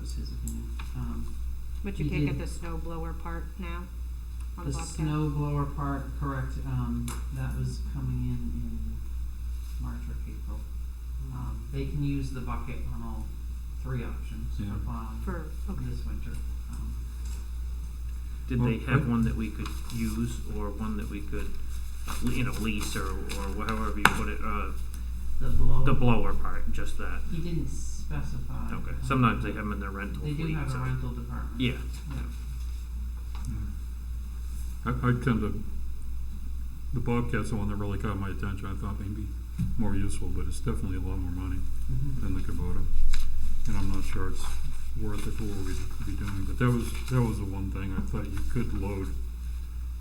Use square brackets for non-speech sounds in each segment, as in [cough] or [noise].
was his opinion. Um, But you You can't get did. the snow blower part now on Mm-hmm. the Bobcat? snow blower part, correct, um, that was coming in in March or April. Mm-hmm. Um, they can use the bucket on all three options Yeah. for plowing For, okay, this winter. Um, Did they Well, have what- one that we could use or one that we could, uh, le- you know, lease or, or however you put it, uh, the blow. the blower part, just that? He didn't specify. Okay, um, sometimes they have them in their rental They fleet. do have a so- rental department. Yeah, I, I tend to, the Bobcat's the one that really caught my attention, I thought maybe more useful, but it's definitely a lot more money Mhm. than the Kubota. And I'm not sure it's worth it for what we'd be doing, but that was, that was the one thing, I thought you could load,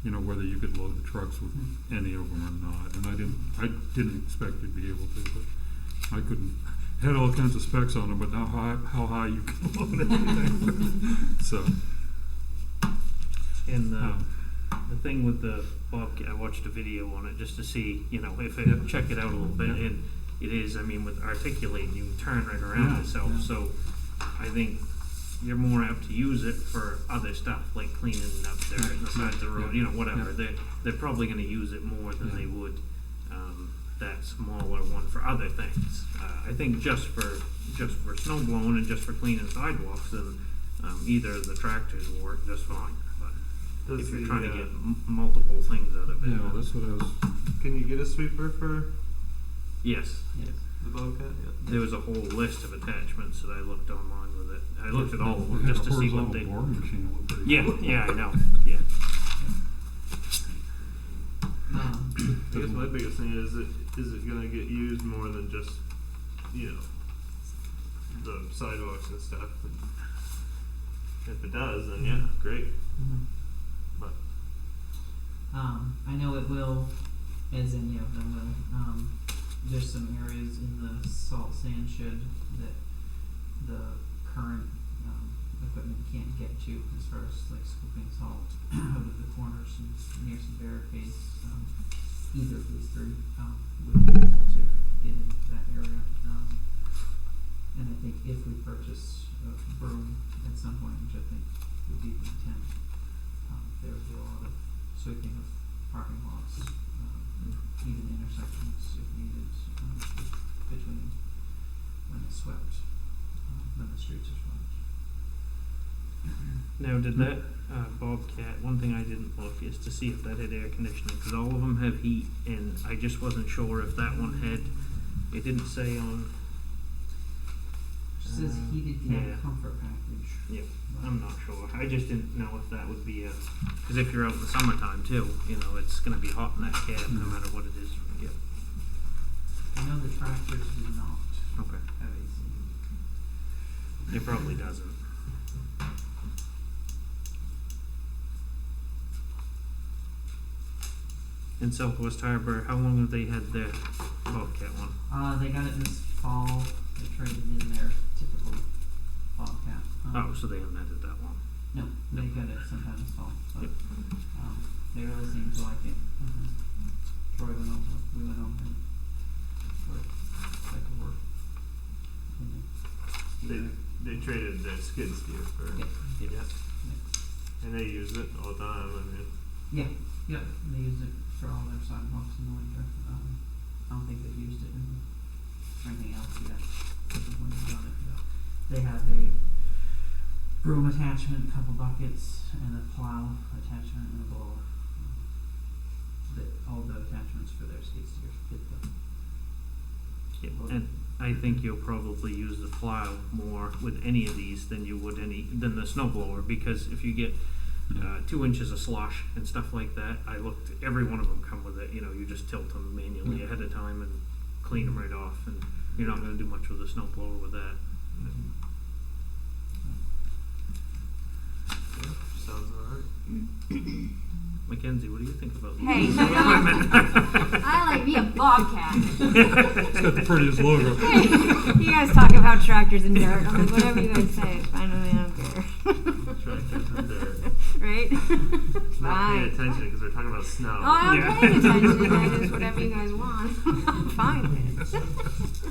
you know, whether you could load the trucks with any of them or not, and I didn't, I didn't expect to be able to, but I couldn't, had all kinds of specs on them, but now how, how high you can [laughs] load anything, so, and uh, the, Oh. um, the thing with the Bobcat, I watched a video on it just to see, you know, if it, Yeah. check it out a little bit, Yeah. and it is, I mean, with articulating, you turn right around Yeah, itself, yeah. so I think you're more apt to use it for other stuff, like cleaning up there in the side of the road, you know, whatever, Yeah. they're, they're probably gonna use it more than Yeah. they would, um, that smaller one for other things. Uh, I think just for, just for snow blowing and just for cleaning sidewalks, then, um, either of the tractors will work just fine, but if Does you're the, trying to uh, get m- multiple things out of it. yeah, then- that's what I was, Can you get a sweeper for Yes, Yes. the Bobcat? there was a whole list of attachments that I looked online with it. I looked at all of them just to see what they. Yeah, yeah, I know. Yeah, Um, I guess my biggest thing is it is it gonna get used more than just you know the sidewalks and stuff. And if it does, then yeah, great. mhm. But Um, I know it will, as any of them will, um, there's some areas in the salt sand shed that the current, um, equipment can't get to as far as like scooping salt [clears throat] out of the corners and near some barricades, um, either of these three, um, would be able to get into that area. Um, and I think if we purchase a broom at some point, which I think would be the intent, um, there would be a lot of sweeping of parking lots, um, even intersections if needed, um, between when it's swept, um, when the streets are swept. now did that uh, Bobcat? One thing I didn't look is to see if that had air conditioning because all of them have heat, and I just wasn't sure if that one had. It didn't say on. She says Uh, heated cab yeah. comfort package. Yep, But- I'm not sure. I just didn't know if that would be a. Because if you're out in the summertime too, you know it's going to be hot in that cab no Mm. matter what it is. Yeah. I know the tractors do not Okay. have AC. It probably doesn't. In Southwest Harbor, how long have they had their Bobcat one? Uh, they got it this fall, they traded in their typical Bobcat. um, Oh, so they haven't had it that long. No, they got it sometime this fall, so, Yep. um, they really seem to like it. Um, Troy went over, we went over and worked, like a work. in they there. they traded their skid steer for Yeah, Yep. yeah, and they use it all the time. I mean, yeah, yep, they use it for all their sidewalks in the winter, um, I don't think they've used it in, for anything else yet, but they've only done it, yeah. They have a broom attachment, couple buckets, and a plow attachment and a blower. Um, That, all the attachments for their skid steers fit the Yeah, And I think you'll probably use the plow more with any of these than you would any than the snow blower because if you get uh, two inches of slosh and stuff like that, I looked. Every one of them come with it. You know, you just tilt them manually Yeah. ahead of time and clean them right off, and you're not going to do much with a snow blower with that. yeah, sounds alright. Mackenzie, what do you think about Mm-hmm. Hey, these you know [laughs] equipment? I like me a bobcat. [laughs] It's got the prettiest logo. you guys talk about tractors and dirt. I'm like, whatever you guys say, it's fine with me. I don't care. Tractors and dirt. [laughs] right? I'm Not paying Fine. attention because we're talking about snow. Oh, I'm [laughs] Yeah. [laughs] paying attention. I just whatever you guys want. I'm fine with it. [laughs]